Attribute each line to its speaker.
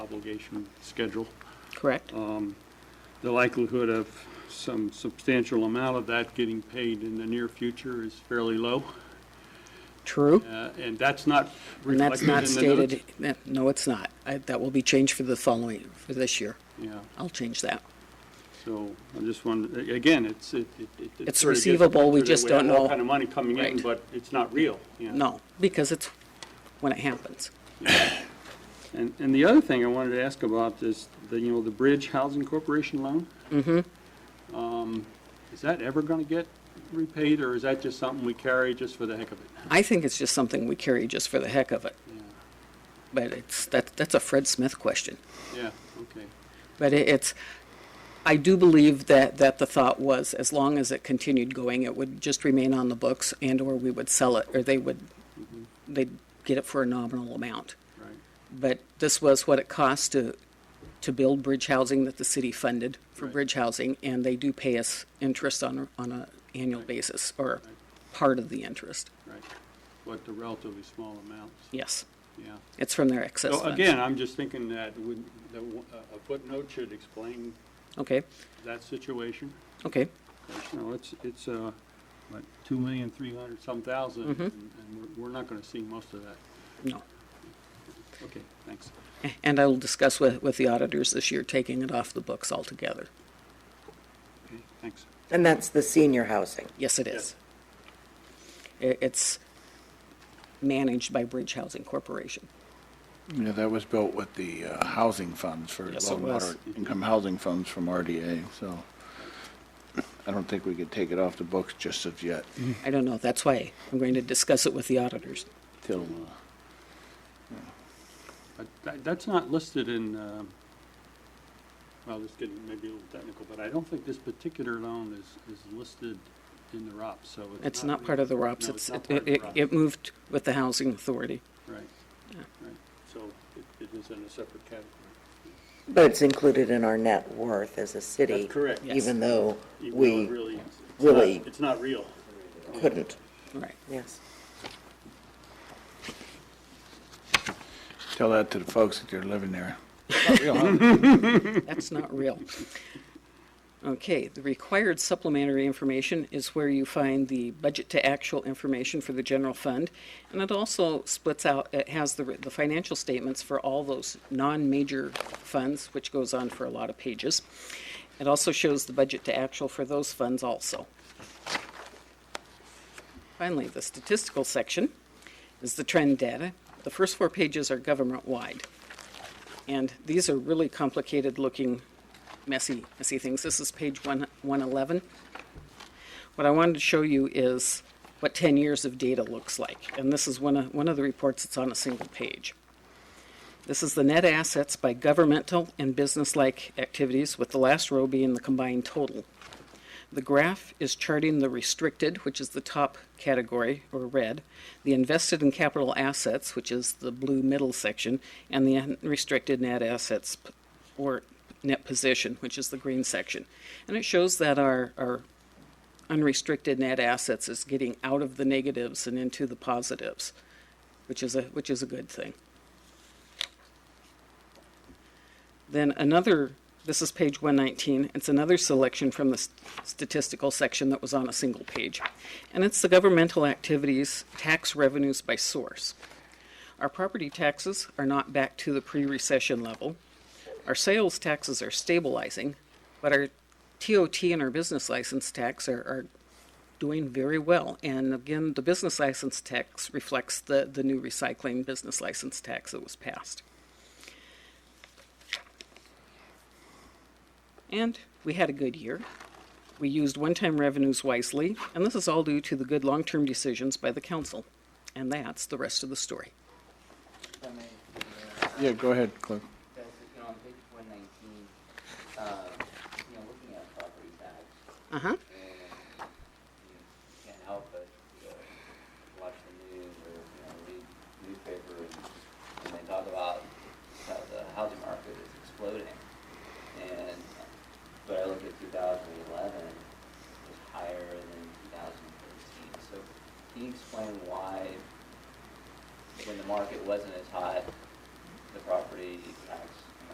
Speaker 1: obligation schedule.
Speaker 2: correct?
Speaker 1: Oh. The likelihood of some substantial amount of that getting paid in the near future is fairly low,
Speaker 2: True.
Speaker 1: uh, and that's not
Speaker 2: And
Speaker 1: reflected
Speaker 2: that's
Speaker 1: in the
Speaker 2: not
Speaker 1: notes.
Speaker 2: stated, that- no, it's not. I- That will be changed for the following, for this year.
Speaker 1: Yeah,
Speaker 2: I'll change that.
Speaker 1: so I just want, a- again, it's, it, it- it.
Speaker 2: It's
Speaker 1: sort of gets
Speaker 2: receivable, we
Speaker 1: considered
Speaker 2: just don't
Speaker 1: have all
Speaker 2: know.
Speaker 1: kind of money coming in,
Speaker 2: Right.
Speaker 1: but it's not real, yeah.
Speaker 2: No, because it's when it happens.
Speaker 1: And, and the other thing I wanted to ask about is the, you know, the Bridge Housing Corporation loan? Mm-hmm. Is that ever gonna get repaid, or is that just something we carry just for the heck of it?
Speaker 2: I think it's just something we carry just for the heck of it. But it's, that, that's a Fred Smith question.
Speaker 1: Yeah, okay.
Speaker 2: But it- it's, I do believe that, that the thought was, as long as it continued going, it would just remain on the books and/or we would sell it, or they would,
Speaker 1: Mm-hmm.
Speaker 2: they'd get it for a nominal amount.
Speaker 1: Right,
Speaker 2: But this was what it cost to, to build bridge housing that the city funded for
Speaker 1: Right.
Speaker 2: bridge housing, and they do pay us interest on, a- on a annual basis, or part of the interest,
Speaker 1: right. But the relatively small amounts,
Speaker 2: yes.
Speaker 1: yeah.
Speaker 2: It's from their excess
Speaker 1: So
Speaker 2: funds.
Speaker 1: again, I'm just thinking that would, that w- a- a footnote should explain
Speaker 2: Okay,
Speaker 1: that situation.
Speaker 2: okay,
Speaker 1: You know, it's, it's, uh, what, two million, three hundred some thousand,
Speaker 2: Mm-hmm.
Speaker 1: and and we're, we're not gonna see most of that.
Speaker 2: no.
Speaker 1: Okay, thanks.
Speaker 2: And I will discuss with, with the auditors this year, taking it off the books altogether.
Speaker 1: Okay, thanks.
Speaker 3: And that's the senior housing.
Speaker 2: Yes, it is. I- It's managed by Bridge Housing Corporation.
Speaker 4: Yeah, that was built with the uh, housing funds for
Speaker 2: Yes, it
Speaker 4: low and
Speaker 2: was.
Speaker 4: moderate income housing funds from RDA, so I don't think we could take it off the books just of yet
Speaker 2: I don't know, that's why I'm going to discuss it with the auditors.
Speaker 4: till,
Speaker 1: But that, that's not listed in, um, well, this is getting maybe a little technical, but I don't think this particular loan is, is listed in the ROPS, so it's not.
Speaker 2: It's not part of the ROPS,
Speaker 1: No,
Speaker 2: it's,
Speaker 1: not
Speaker 2: it,
Speaker 1: part of the
Speaker 2: it,
Speaker 1: ROPS.
Speaker 2: it moved with the Housing Authority.
Speaker 1: Right, right, so it, it is in a separate category.
Speaker 3: But it's included in our net worth as a city.
Speaker 1: That's correct.
Speaker 2: Yes.
Speaker 3: Even though
Speaker 1: Even though it
Speaker 3: we
Speaker 1: really, it's
Speaker 3: really-
Speaker 1: not, it's not real.
Speaker 3: couldn't,
Speaker 2: Right,
Speaker 3: yes.
Speaker 4: tell that to the folks that are living there. Not real, huh?
Speaker 2: that's not real. Okay, the required supplementary information is where you find the budget to actual information for the general fund. And it also splits out, it has the, the financial statements for all those non-major funds, which goes on for a lot of pages. It also shows the budget to actual for those funds also. Finally, the statistical section is the trend data. The first four pages are government-wide. And these are really complicated-looking, messy, messy things. This is page one- 111. What I wanted to show you is what 10 years of data looks like. And this is one of, one of the reports that's on a single page. This is the net assets by governmental and business-like activities, with the last row being the combined total. The graph is charting the restricted, which is the top category, or red, the invested in capital assets, which is the blue middle section, and the unrestricted net assets, p- or net position, which is the green section. And it shows that our, our unrestricted net assets is getting out of the negatives and into the positives, which is a, which is a good thing. Then another, this is page 119, it's another selection from the s- statistical section that was on a single page. And it's the governmental activities, tax revenues by source. Our property taxes are not back to the pre-recession level. Our sales taxes are stabilizing, but our TOT and our business license tax are, are doing very well. And again, the business license tax reflects the, the new recycling business license tax that was passed. And we had a good year. We used one-time revenues wisely, and this is all due to the good long-term decisions by the council. And that's the rest of the story.
Speaker 4: Yeah, go ahead, Cliff.
Speaker 5: Guys, you know, on page one nineteen, uh, you know, looking at property tax,
Speaker 2: Uh-huh.
Speaker 5: and you you can't help but, you know, watch the news or, you know, read newspaper, and, and they talk about how the housing market is exploding. And, but I look at two thousand eleven, it was higher than two thousand thirteen, so can you explain why, when the market wasn't as hot, the property tax